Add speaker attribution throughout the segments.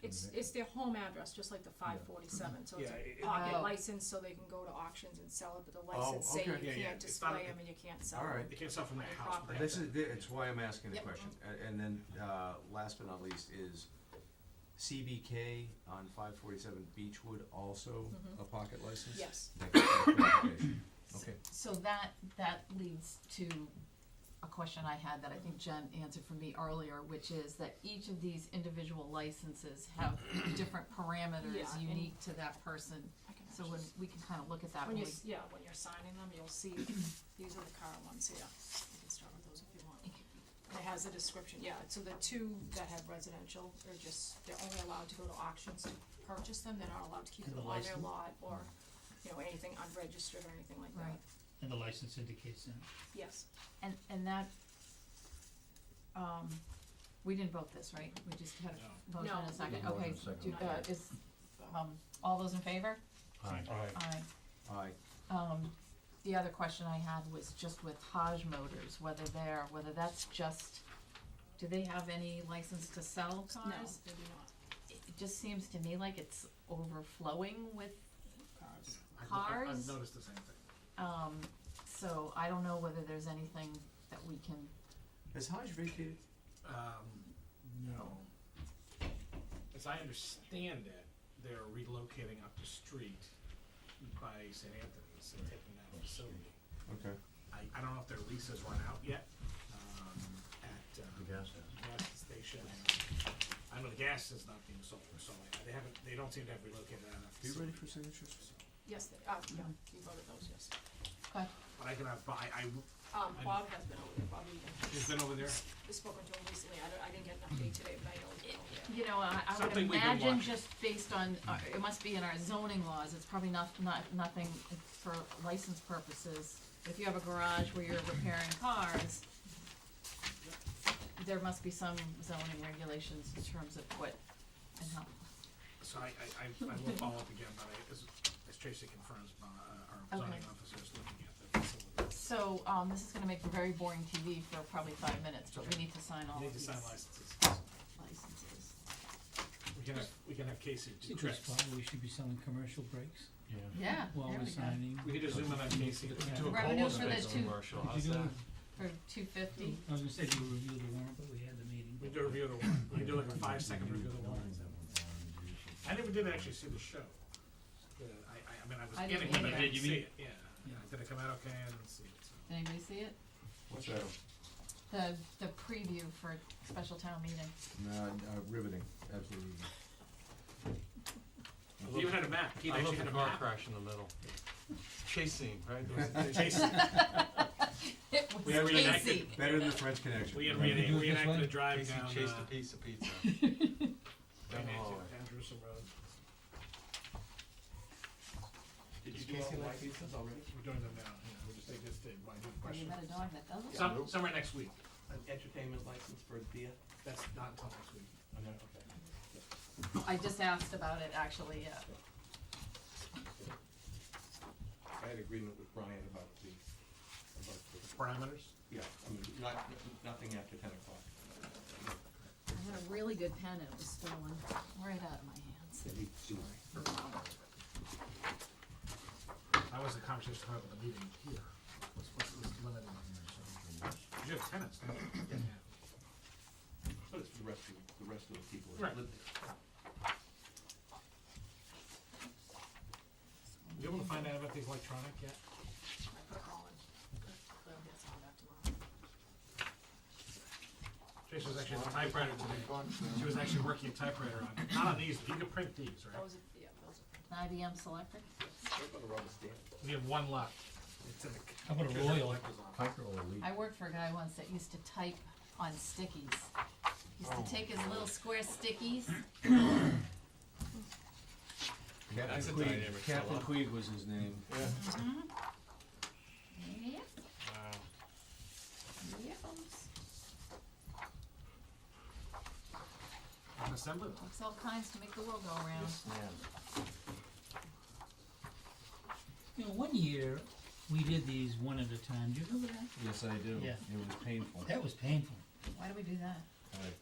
Speaker 1: it's, it's their home address, just like the five forty-seven, so it's
Speaker 2: Yeah, it-
Speaker 1: a
Speaker 2: it- Oh,
Speaker 1: pocket
Speaker 3: Oh.
Speaker 1: license, so they can go to auctions and sell it, but the license say
Speaker 4: Oh, okay.
Speaker 2: Yeah,
Speaker 1: you
Speaker 2: yeah,
Speaker 1: can't
Speaker 2: it's not-
Speaker 1: display them and you can't sell
Speaker 4: All
Speaker 1: them.
Speaker 4: right.
Speaker 2: They can't sell from their house. but they
Speaker 4: This
Speaker 2: have
Speaker 4: is,
Speaker 2: to-
Speaker 4: it's why I'm asking the
Speaker 3: Yep.
Speaker 4: question, A- and then, uh, last but not least is CBK on five forty-seven Beechwood also a pocket license?
Speaker 1: Mm-hmm. Yes.
Speaker 4: Thank you for the clarification.
Speaker 3: S-
Speaker 4: Okay.
Speaker 3: So that, that leads to a question I had that I think Jen answered for me earlier, which is that each of these individual licenses have different parameters
Speaker 1: Yeah, and-
Speaker 3: unique to that person.
Speaker 1: I can
Speaker 3: So
Speaker 1: actually-
Speaker 3: when, we can kind of look at that
Speaker 1: When
Speaker 3: when we,
Speaker 1: you, s- yeah, when you're signing them, you'll see, these are the current ones here, you can start with those if you want. It has a description, yeah, so the two that have residential are just, they're only allowed to go to auctions to purchase them, they're not allowed to keep
Speaker 5: And
Speaker 1: them
Speaker 5: the
Speaker 1: on their
Speaker 5: license?
Speaker 1: lot, or, you know, anything unregistered or anything like that,
Speaker 3: Right.
Speaker 5: And the license indicates that.
Speaker 1: yes.
Speaker 3: and, and that, um, we didn't vote this, right? We just had a motion
Speaker 1: No,
Speaker 3: and
Speaker 1: we
Speaker 3: a second,
Speaker 4: didn't.
Speaker 3: okay,
Speaker 4: Motion and
Speaker 3: do,
Speaker 1: second.
Speaker 3: uh, is, um, all those in favor? Aye.
Speaker 4: Aye,
Speaker 3: Um, the other question I had was just with Hodge Motors, whether they're, whether that's just, do they have any license to sell
Speaker 1: No,
Speaker 3: cars?
Speaker 1: they do not,
Speaker 3: It it just seems to me like it's overflowing with,
Speaker 1: cars,
Speaker 2: I've- I've-
Speaker 3: cars?
Speaker 2: I've noticed the same thing.
Speaker 3: um, so I don't know whether there's anything that we can,
Speaker 4: has Hodge vacated?
Speaker 2: Um, no. As I understand it, they're relocating up the street by St. Anthony's and taking that facility.
Speaker 4: Okay.
Speaker 2: I, I don't know if their lease has run out yet, um, at, um,
Speaker 6: The gas
Speaker 2: gas station. I know the gas is not being sold, so I- they haven't, they don't seem to have relocated that
Speaker 4: Are you
Speaker 2: facility.
Speaker 4: ready for signatures?
Speaker 1: yes, they, uh, yeah, you voted those, yes.
Speaker 3: but
Speaker 2: But I can have, I, I,
Speaker 1: Um,
Speaker 2: I-
Speaker 1: Bob has been over there, Bob Egan,
Speaker 2: he's been over there.
Speaker 1: I've spoken to him recently, I don't, I didn't get an update today, but I know he's been over there.
Speaker 3: You know, I, I would
Speaker 2: Something we can
Speaker 3: imagine
Speaker 2: watch.
Speaker 3: just based on, our- it must be in our zoning laws, it's probably not, not, nothing for license purposes. If you have a garage where you're repairing cars, there must be some zoning regulations in terms of what and how.
Speaker 2: So I, I, I I will follow up again, but I, as, as Tracy confirms, uh, our zoning
Speaker 3: Okay.
Speaker 2: officer is looking at the facility.
Speaker 3: So, um, this is gonna make for very boring TV for probably five minutes, but we need to sign all
Speaker 2: You
Speaker 3: of
Speaker 2: Need to
Speaker 3: these
Speaker 2: sign licenses.
Speaker 3: licenses.
Speaker 2: We can have, we can have Casey do
Speaker 5: Citrus
Speaker 2: tricks.
Speaker 5: probably should be selling commercial breaks
Speaker 3: Yeah,
Speaker 5: while
Speaker 3: there
Speaker 5: we're
Speaker 3: we go.
Speaker 5: signing.
Speaker 2: We could just zoom in on Casey.
Speaker 6: Do a
Speaker 3: Revenue
Speaker 6: polo
Speaker 3: for the
Speaker 6: space
Speaker 3: two-
Speaker 6: commercial,
Speaker 5: Could
Speaker 6: how's
Speaker 5: you do
Speaker 6: that?
Speaker 3: For two fifty,
Speaker 5: I was gonna say, do you review the warrant, but we had the meeting.
Speaker 2: We do a review of the warrant. We do like a five second review of the warrant. I never did actually see the show. Yeah, I, I, I mean, I was
Speaker 3: I
Speaker 2: in
Speaker 3: didn't
Speaker 2: it, but I
Speaker 3: either.
Speaker 2: didn't
Speaker 6: Did you
Speaker 2: see
Speaker 6: mean-
Speaker 2: it, yeah. Yeah, did it come out okay? I didn't see it, so.
Speaker 3: did anybody see it?
Speaker 4: What's that?
Speaker 3: The, the preview for special town meeting.
Speaker 4: No, uh, riveting, absolutely.
Speaker 2: He even had a map. He
Speaker 6: I
Speaker 2: actually
Speaker 6: love
Speaker 2: had
Speaker 6: the
Speaker 2: a
Speaker 6: car
Speaker 2: map.
Speaker 6: crash in the middle. Chase scene, right? There was-
Speaker 2: Jason,
Speaker 3: It
Speaker 2: We had
Speaker 3: was
Speaker 2: reenacted-
Speaker 3: Casey.
Speaker 4: Better than the French Connection.
Speaker 2: we had
Speaker 4: Right.
Speaker 5: Do it
Speaker 2: reenact-
Speaker 5: this
Speaker 2: reenacted
Speaker 5: way?
Speaker 2: a drive
Speaker 6: Casey
Speaker 2: down, uh,
Speaker 6: chased Oh. a piece of pizza. Down the
Speaker 2: reenacted
Speaker 6: hallway.
Speaker 2: down Jerusalem Road.
Speaker 6: Did
Speaker 2: you
Speaker 6: you
Speaker 2: do all
Speaker 6: Casey
Speaker 2: the
Speaker 6: like pizzas already?
Speaker 2: We're doing them now, yeah, we're just, they just did, why, good
Speaker 3: Have you
Speaker 2: question.
Speaker 3: met a dog that doesn't?
Speaker 2: Some, somewhere next week.
Speaker 6: An entertainment license for beer?
Speaker 2: That's not until next week. Okay.
Speaker 3: I just asked about it actually, yeah.
Speaker 7: I had agreement with Brian about the, about the,
Speaker 2: Parameters?
Speaker 7: yeah, I mean, not, nothing after ten o'clock.
Speaker 3: I had a really good pen and it was stolen right out of my hands.
Speaker 2: That was the conversation I had with the meeting here. What's, what's, what's limited on there, so. You have tenants, don't you?
Speaker 7: But it's the rest of, the rest of the people
Speaker 2: Right.
Speaker 7: that live there.
Speaker 2: You able to find out about these electronic yet?
Speaker 1: I put a call in, but I'll get some of that tomorrow.
Speaker 2: Tracy was actually a typewriter today. She was actually working a typewriter on, not on these, but you can print these, right?
Speaker 1: Those are, yeah, those are.
Speaker 3: An IBM Selectric?
Speaker 7: They're gonna rubber stamp.
Speaker 2: We have one left. It's in the.
Speaker 5: How about a Royal?
Speaker 6: Piper or Lee?
Speaker 3: I worked for a guy once that used to type on stickies. Used
Speaker 2: Oh.
Speaker 3: to take his little square stickies.
Speaker 6: That's a
Speaker 4: Captain Queeg,
Speaker 6: dynamic
Speaker 4: Captain
Speaker 6: fellow.
Speaker 4: Queeg was his name.
Speaker 3: Mm-hmm. Yep,
Speaker 6: Wow.
Speaker 2: Uh,
Speaker 3: yep.
Speaker 2: An assembly line.
Speaker 3: Looks all kinds to make the world go around.
Speaker 5: You know, one year, we did these one at a time. Do you remember that?
Speaker 4: Yes, I do.
Speaker 5: Yeah.
Speaker 4: It was painful,
Speaker 5: That was painful.
Speaker 3: Why do we do that?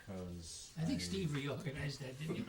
Speaker 4: because.
Speaker 5: I think Steve reorganized that, didn't he?